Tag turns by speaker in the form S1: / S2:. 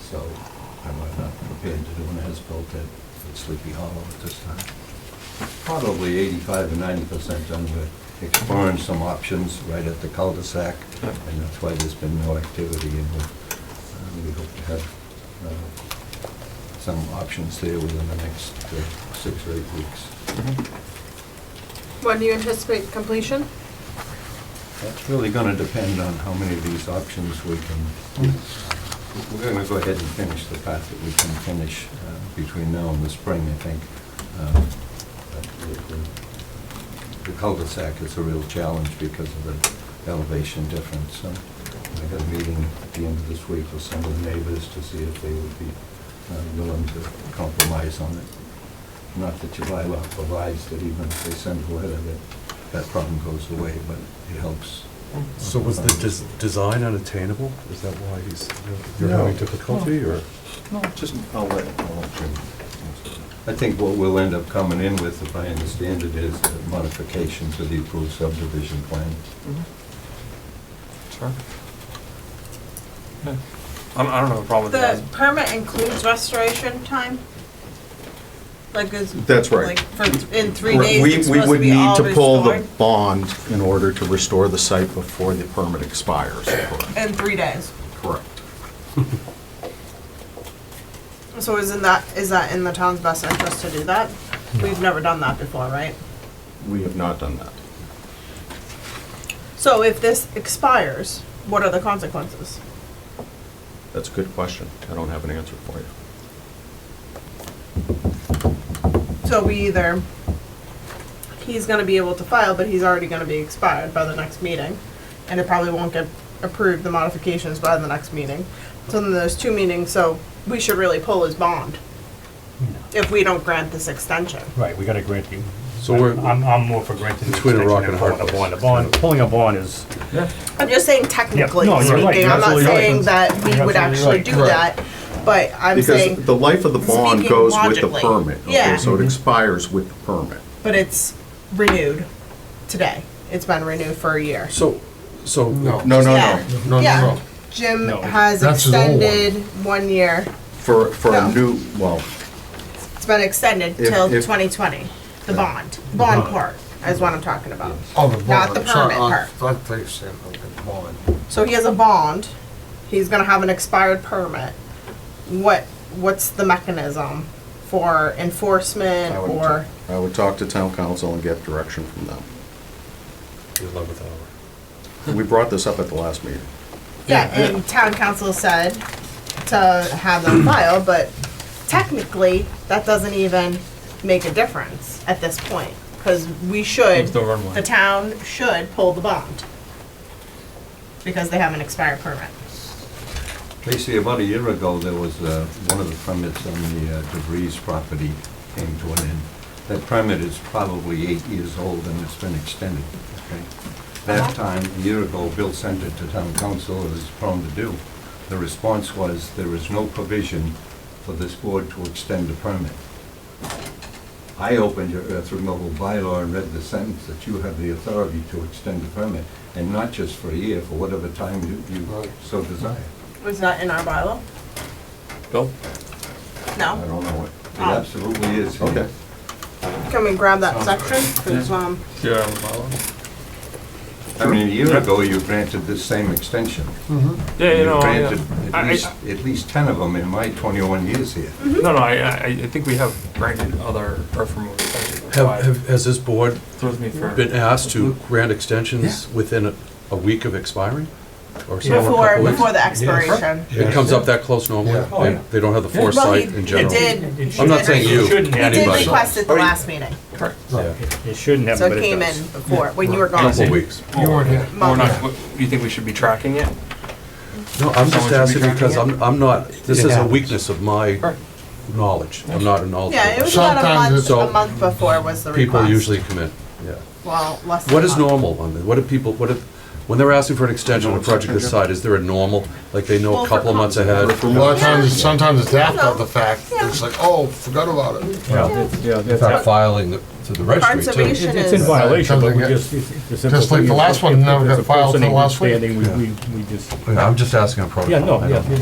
S1: So I'm not prepared to do an as-built at Sleepy Hollow at this time. Probably 85 to 90 percent done. We're exploring some options right at the cul-de-sac, and that's why there's been no activity. And we- uh, we hope to have uh, some options there within the next uh, six or eight weeks.
S2: Mm-hmm.
S3: When do you anticipate completion?
S1: That's really going to depend on how many of these options we can, we're going to go ahead and finish the part that we can finish uh, between now and the spring, I think. Um, but the- the- The cul-de-sac is a real challenge because of the elevation difference. So I got a meeting at the end of this week with some of the neighbors to see if they would be uh, willing to compromise on it. Not that your bylaw provides that even if they send a letter, that that problem goes away, but it helps.
S4: So was the des- design unattainable? Is that why he's, you're
S1: No.
S4: having difficulty, or?
S1: No, just, I'll let, I'll let you. I think what we'll end up coming in with, if I understand it, is a modification to the approved subdivision plan.
S2: Mm-hmm. Sure. Yeah. I don't- I don't have a problem with
S5: The
S2: that.
S5: permit includes restoration time? Like is.
S6: That's right.
S5: Like for, in three days,
S6: We,
S5: it's
S6: we
S5: supposed to
S6: would
S5: be
S6: need
S5: all
S6: to pull the
S5: restored?
S6: bond in order to restore the site before the permit expires. Correct.
S5: In three days.
S6: Correct.
S5: So isn't that, is that in the town's best interest to do that? We've never done that before, right?
S6: We have not done that.
S5: So if this expires, what are the consequences?
S6: That's a good question. I don't have an answer for you.
S5: So we either, he's gonna be able to file, but he's already gonna be expired by the next meeting. And it probably won't get approved, the modifications by the next meeting. So then there's two meetings, so we should really pull his bond if we don't grant this extension.
S7: Right, we gotta grant you.
S4: So we're-
S7: I'm, I'm more for granting the
S4: Between a
S7: extension
S4: rock and
S7: than
S4: a hard
S7: pulling a
S4: place.
S7: bond. A bond, pulling a bond is,
S5: I'm just saying technically
S7: no, you're right,
S5: speaking,
S7: you're
S5: I'm not
S7: absolutely right.
S5: saying that we
S7: You're
S5: would
S7: absolutely
S5: actually
S7: right.
S5: do that, but I'm
S6: Because
S5: saying,
S6: the life of the bond
S5: Speaking
S6: goes with the
S5: logically.
S6: permit. okay?
S5: Yeah.
S6: So it expires with the permit.
S5: but it's renewed today. It's been renewed for a year.
S4: So, so.
S2: No.
S6: Oh, No, no,
S5: Yeah.
S6: no.
S5: Yeah, Jim
S7: No,
S5: has
S8: that's his old one.
S5: extended one year.
S6: For, for
S5: No.
S6: a new, well,
S5: It's been extended
S6: If-
S5: till
S6: if-
S5: 2020, the bond, bond part is what I'm talking about.
S8: Oh, the
S5: Not the
S8: bond, sorry,
S5: permit
S8: I- I thought you said the bond.
S5: So he has a bond, he's gonna have an expired permit. What, what's the mechanism for enforcement
S6: I would,
S5: or,
S6: I would talk to town council and get direction from them.
S4: The eleventh hour.
S6: We brought this up at the last meeting.
S5: yeah, and town council said to have them file, but technically, that doesn't even make a difference at this point. Cause we should,
S2: Still run one.
S5: the town should pull the bond. Because they have an expired permit.
S1: Basically, about a year ago, there was uh, one of the permits on the uh, DeVries property came to an end. That permit is probably eight years old and it's been extended, okay? That time, a year ago, Bill sent it to town council, as he's prone to do. The response was, there is no provision for this board to extend a permit. I opened your earth removal bylaw and read the sentence that you have the authority to extend a permit, and not just for a year, for whatever time you you so desire.
S5: Was that in our bylaw?
S2: Bill?
S5: No?
S6: I don't know what.
S1: It absolutely is.
S6: Okay.
S5: Can we grab that section? 'Cause, um,
S2: Yeah, I'm following.
S1: I mean, a year ago, you granted this same extension.
S2: Yeah, you
S1: You
S2: know, I, uh,
S1: granted at
S2: I,
S1: least,
S2: I-
S1: at least 10 of them in my 21 years here.
S2: Mm-hmm. no, no, I, I, I think we have granted other earth removal extensions.
S4: Have, have, has this board
S2: Throws me for.
S4: been asked to grant extensions within a, a week of expiring? Or so, or a
S5: before,
S4: couple weeks?
S5: before the expiration.
S4: It comes up that close normally?
S8: Yeah.
S2: Oh,
S4: They,
S2: yeah.
S4: they don't have the
S5: Well, he-
S4: foresight in general?
S5: He did.
S7: It
S5: he
S4: I'm not
S5: did-
S4: saying you,
S7: It shouldn't
S5: He did
S4: anybody.
S5: request it the last meeting,
S2: Correct.
S4: Yeah.
S7: it it shouldn't
S5: so
S7: happen, but
S5: it
S7: it
S5: came in
S7: does.
S5: before, when you were gone.
S4: Couple weeks.
S8: You weren't here.
S2: We're not, what- do you think we should be tracking it?
S4: No, I'm
S2: Someone
S4: just
S2: should be
S4: asking because
S2: tracking
S4: I'm, I'm not, this
S8: It
S4: is a
S8: happens.
S4: weekness of my knowledge. I'm not a knowledgeable.
S5: Yeah, it was about a
S8: Sometimes
S5: month,
S8: it's-
S5: a month before was the request.
S4: People usually commit, yeah.
S5: Well, less than a
S4: What is
S5: month.
S4: normal on this? What do people, what if, when they're asking for an extension on a project this side, is there a normal, like they know
S5: Well,
S4: a couple of
S5: for
S4: months ahead?
S6: For
S8: A lot
S6: what?
S8: of times, sometimes it's after the fact,
S5: Yeah.
S8: it's like, oh, forgot about it.
S7: Yeah,
S4: In
S7: that's
S4: fact,
S7: how-
S4: filing the- to the registry too.
S5: Conservation
S7: It's in
S5: is-
S7: violation, but we
S8: Something
S7: just.
S8: Just like the last one, never got filed till last week.
S7: We, we, we just,
S4: I'm just asking a protocol.
S7: yeah, no,
S4: I don't-
S7: yeah.